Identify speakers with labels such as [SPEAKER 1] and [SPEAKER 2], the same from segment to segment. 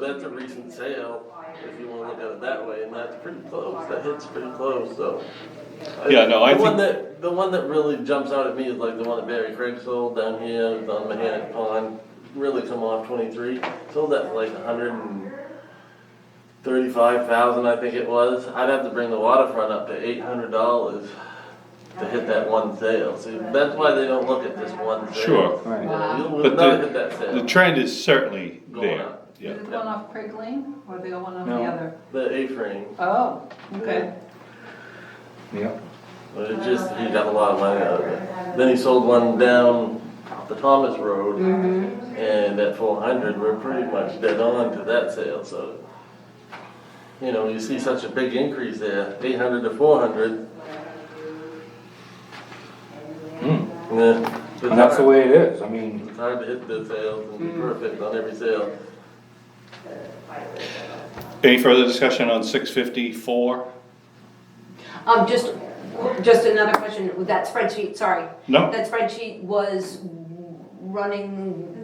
[SPEAKER 1] That's a recent sale, if you wanna look at it that way, and that's pretty close, that hits pretty close, so.
[SPEAKER 2] Yeah, no, I
[SPEAKER 1] The one
[SPEAKER 2] think-
[SPEAKER 1] that, the one that really jumps out at me is like the one that Barry Craig sold down here, it's on Mahanic Pond, really come off twenty-three, sold that for like a hundred and thirty-five thousand, I think it was, I'd have to bring the waterfront up to eight hundred dollars to hit that one sale, see, that's why they don't look at this one sale.
[SPEAKER 2] Sure.
[SPEAKER 1] You
[SPEAKER 3] Right.
[SPEAKER 1] know, You'll
[SPEAKER 2] But
[SPEAKER 1] never
[SPEAKER 2] the-
[SPEAKER 1] hit that sale.
[SPEAKER 2] The trend is certainly
[SPEAKER 1] Going
[SPEAKER 2] there,
[SPEAKER 1] up.
[SPEAKER 2] yeah.
[SPEAKER 4] Is it the one off Craig Lane or the one on the
[SPEAKER 3] No.
[SPEAKER 4] other?
[SPEAKER 1] The A-frame,
[SPEAKER 4] Oh, okay.
[SPEAKER 3] Yep.
[SPEAKER 1] but it just, he got a lot of money out of it. Then he sold one down the Thomas Road,
[SPEAKER 5] Mm-hmm.
[SPEAKER 1] and at four hundred, we're pretty much dead on to that sale, so. You know, you see such a big increase there, eight hundred to four hundred. Yeah. it's
[SPEAKER 3] And Hmm. that's the
[SPEAKER 1] hard-
[SPEAKER 3] way it is, I mean,
[SPEAKER 1] It's hard to hit the sales and
[SPEAKER 5] Hmm.
[SPEAKER 1] be perfect on every sale.
[SPEAKER 2] Any further discussion on six fifty-four?
[SPEAKER 5] Um, just, just another question, that spreadsheet, sorry.
[SPEAKER 2] No.
[SPEAKER 5] That spreadsheet was running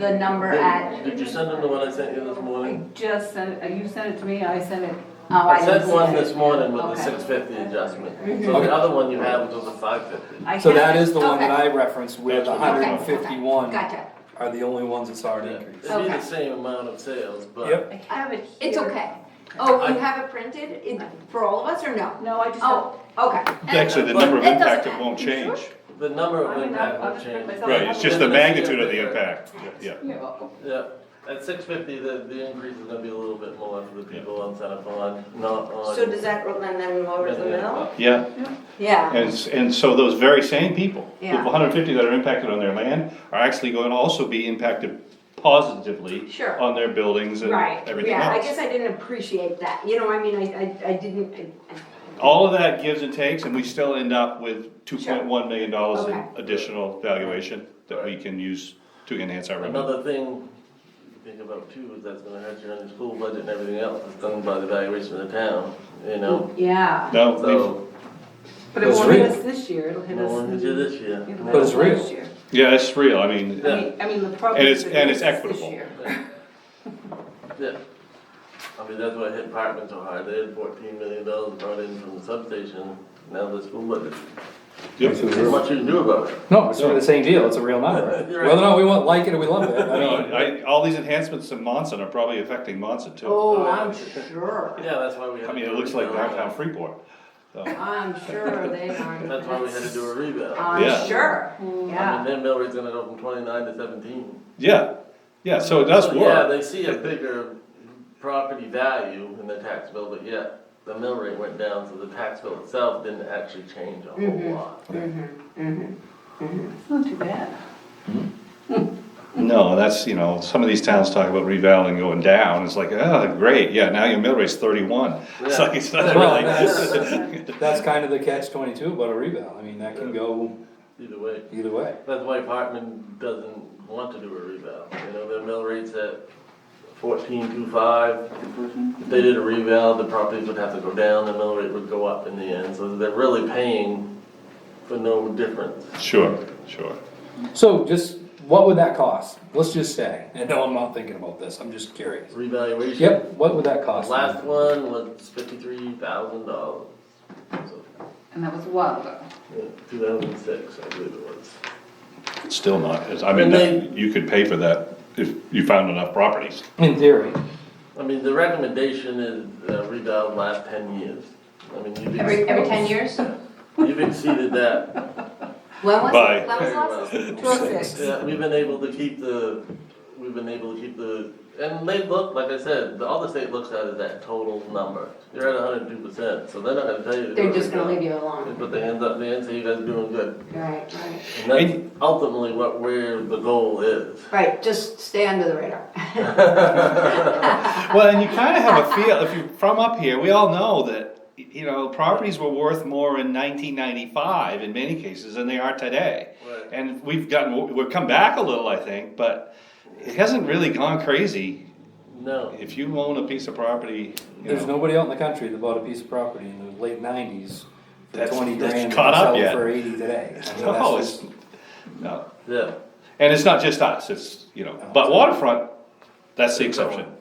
[SPEAKER 5] the number
[SPEAKER 1] Did
[SPEAKER 5] at,
[SPEAKER 1] did you send him the one I sent you this
[SPEAKER 4] I
[SPEAKER 1] morning?
[SPEAKER 4] just sent, it- you sent it to me, I sent it.
[SPEAKER 5] oh, I
[SPEAKER 1] I
[SPEAKER 5] didn't
[SPEAKER 1] sent
[SPEAKER 5] see Mm-hmm.
[SPEAKER 1] one
[SPEAKER 5] that.
[SPEAKER 1] this morning with the
[SPEAKER 4] Okay.
[SPEAKER 1] six fifty adjustment, so
[SPEAKER 3] Okay.
[SPEAKER 1] the other one you have was the five fifty.
[SPEAKER 4] I
[SPEAKER 3] so
[SPEAKER 4] had
[SPEAKER 3] that
[SPEAKER 4] it.
[SPEAKER 3] is the one that
[SPEAKER 5] Okay.
[SPEAKER 3] I referenced where the
[SPEAKER 2] That's what
[SPEAKER 3] hundred
[SPEAKER 2] we're
[SPEAKER 3] and fifty-one
[SPEAKER 5] Gotcha,
[SPEAKER 3] are the only ones that saw an
[SPEAKER 1] It'd be
[SPEAKER 3] increase.
[SPEAKER 1] the
[SPEAKER 5] Okay.
[SPEAKER 1] same amount of sales, but
[SPEAKER 3] Yep,
[SPEAKER 4] I have it here.
[SPEAKER 5] it's okay. Oh,
[SPEAKER 1] I-
[SPEAKER 5] you have it printed in, for all of us or no?
[SPEAKER 4] No, I just.
[SPEAKER 5] Oh, okay.
[SPEAKER 2] Actually, the number of
[SPEAKER 5] It doesn't
[SPEAKER 2] impact it
[SPEAKER 5] matter.
[SPEAKER 2] won't change.
[SPEAKER 1] the number
[SPEAKER 4] I
[SPEAKER 1] of
[SPEAKER 4] mean,
[SPEAKER 1] impact
[SPEAKER 4] I'll
[SPEAKER 1] will
[SPEAKER 4] just print
[SPEAKER 1] change.
[SPEAKER 4] myself.
[SPEAKER 2] Right, it's just the magnitude of the impact, yeah.
[SPEAKER 4] You're welcome.
[SPEAKER 1] Yeah, at six fifty, the, the increase is gonna be a little bit more for the people on Santa Pond, not on.
[SPEAKER 5] So does that run then lower the mill?
[SPEAKER 2] Yeah,
[SPEAKER 5] Yeah,
[SPEAKER 2] and, s- and so those very same people,
[SPEAKER 5] Yeah.
[SPEAKER 2] people hundred and fifty that are impacted on their land, are actually going to also be impacted positively
[SPEAKER 5] Sure.
[SPEAKER 2] on their buildings and
[SPEAKER 5] right,
[SPEAKER 2] everything
[SPEAKER 5] yeah, I
[SPEAKER 2] else.
[SPEAKER 5] guess I didn't appreciate that, you know, I mean, I, I, I didn't, I- I-
[SPEAKER 2] All of that gives and takes, and we still end up with two point one million dollars in
[SPEAKER 5] Okay.
[SPEAKER 2] additional valuation that we can use to enhance our revenue.
[SPEAKER 1] Another thing to think about too is that's gonna hurt your own school budget and everything else, it's done by the valuation of the town, you know,
[SPEAKER 4] Yeah,
[SPEAKER 5] Hmm.
[SPEAKER 2] No, we've-
[SPEAKER 1] so,
[SPEAKER 4] but it
[SPEAKER 3] That's
[SPEAKER 4] won't hit
[SPEAKER 3] real.
[SPEAKER 4] us this year, it'll hit
[SPEAKER 1] no
[SPEAKER 4] us.
[SPEAKER 1] one hit you this year.
[SPEAKER 4] it'll
[SPEAKER 3] But it's
[SPEAKER 4] hit us
[SPEAKER 3] real.
[SPEAKER 4] next year.
[SPEAKER 2] yeah, it's real, I mean,
[SPEAKER 4] I mean, I mean, the problem
[SPEAKER 2] And
[SPEAKER 4] is.
[SPEAKER 2] it's-
[SPEAKER 4] that
[SPEAKER 2] and
[SPEAKER 4] it
[SPEAKER 2] it's
[SPEAKER 4] hits us
[SPEAKER 2] equitable.
[SPEAKER 4] This year.
[SPEAKER 1] Yeah. I mean, that's why hit Parkman so hard, they had fourteen million dollars brought in from the substation, now the school budget,
[SPEAKER 2] yep.
[SPEAKER 3] This is
[SPEAKER 1] there's
[SPEAKER 3] real.
[SPEAKER 1] much you can do about it.
[SPEAKER 3] No, it's sort of the same deal, it's a real number.
[SPEAKER 1] You're right.
[SPEAKER 3] Whether or not we want, like it or we love it, I
[SPEAKER 2] No,
[SPEAKER 3] mean,
[SPEAKER 2] I, all these enhancements to Monson are probably affecting Monson too.
[SPEAKER 5] oh, I'm sure,
[SPEAKER 1] Yeah, that's why we had.
[SPEAKER 2] I mean,
[SPEAKER 1] to
[SPEAKER 2] it
[SPEAKER 1] do a
[SPEAKER 2] looks like
[SPEAKER 1] rebound.
[SPEAKER 2] downtown Freeport.
[SPEAKER 5] I'm sure they are.
[SPEAKER 1] That's why we had to do a rebound.
[SPEAKER 2] Yeah.
[SPEAKER 5] I'm sure,
[SPEAKER 1] I
[SPEAKER 2] Mm-hmm.
[SPEAKER 1] mean,
[SPEAKER 5] Uh, yeah.
[SPEAKER 1] their mill rate's gonna go from twenty-nine to seventeen.
[SPEAKER 2] Yeah, yeah, so it does
[SPEAKER 1] So, Yeah,
[SPEAKER 2] work.
[SPEAKER 1] they see a bigger property value in their tax bill, but yet the mill rate went down, so the tax bill itself didn't actually change a whole lot.
[SPEAKER 4] It's not too bad.
[SPEAKER 2] No, that's, you know, some of these towns talk about revaluing going down, it's like, oh, great, yeah, now your mill rate's thirty-one. It's
[SPEAKER 1] Yeah.
[SPEAKER 2] like, it's not
[SPEAKER 3] Well,
[SPEAKER 2] really.
[SPEAKER 3] that's kind of the catch twenty-two about a rebound, I mean, that can go
[SPEAKER 1] Either way.
[SPEAKER 3] either way.
[SPEAKER 1] That's why Parkman doesn't want to do a revale, you know, their mill rate's at fourteen two five. If they did a revale, the properties would have to go down, the mill rate would go up in the end, so they're really paying for no difference.
[SPEAKER 2] Sure, sure.
[SPEAKER 3] So just, what would that cost? Let's just say, and no, I'm not thinking about this, I'm just curious.
[SPEAKER 1] Revaluation.
[SPEAKER 3] Yep, what would that
[SPEAKER 1] The
[SPEAKER 3] cost?
[SPEAKER 1] Last one was fifty-three thousand dollars, so,
[SPEAKER 4] And that was a while ago.
[SPEAKER 1] two thousand and six, I believe it was.
[SPEAKER 2] It's Still not, it's- I mean,
[SPEAKER 1] And they-
[SPEAKER 2] that- you could pay for that if you found enough properties.
[SPEAKER 3] In theory,
[SPEAKER 1] I mean, the recommendation is uh, revale last ten years. I mean, you've
[SPEAKER 5] Every,
[SPEAKER 1] ex-
[SPEAKER 5] every ten years? When
[SPEAKER 1] you've exceeded that
[SPEAKER 5] was
[SPEAKER 2] Bye.
[SPEAKER 5] it, when
[SPEAKER 1] very
[SPEAKER 5] was
[SPEAKER 1] well.
[SPEAKER 5] the last? oh
[SPEAKER 1] Yeah, we've been able to keep the, we've been able to keep the, and they look, like I said, the- all the state looks at is that total number. You're at hundred and two percent, so they're not gonna tell you. to do
[SPEAKER 5] They're just gonna
[SPEAKER 1] everything.
[SPEAKER 5] leave you
[SPEAKER 1] They
[SPEAKER 5] alone,
[SPEAKER 1] put their hands up in the air and say, you guys are doing good.
[SPEAKER 5] right, right,
[SPEAKER 1] And that's ultimately what, where the goal is.
[SPEAKER 5] right, just stay under the radar.
[SPEAKER 2] Well, and you kind of have a feel, if you're from up here, we all know that, you know, properties were worth more in nineteen ninety-five in many cases than they are today.
[SPEAKER 1] Right.
[SPEAKER 2] And we've gotten, we've come back a little, I think, but it hasn't really gone crazy.
[SPEAKER 1] No,
[SPEAKER 2] If you own a piece of property, you
[SPEAKER 3] there's
[SPEAKER 2] know,
[SPEAKER 3] nobody out in the country that bought a piece of property in the late nineties for
[SPEAKER 2] That's-
[SPEAKER 3] twenty
[SPEAKER 2] that's
[SPEAKER 3] grand and
[SPEAKER 2] caught up
[SPEAKER 3] sell it
[SPEAKER 2] yet.
[SPEAKER 3] for eighty today. I mean,
[SPEAKER 2] no,
[SPEAKER 3] that's just-
[SPEAKER 2] oh, it's, no.
[SPEAKER 1] yeah.
[SPEAKER 2] And it's not just us, it's, you know, but waterfront, that's the exception.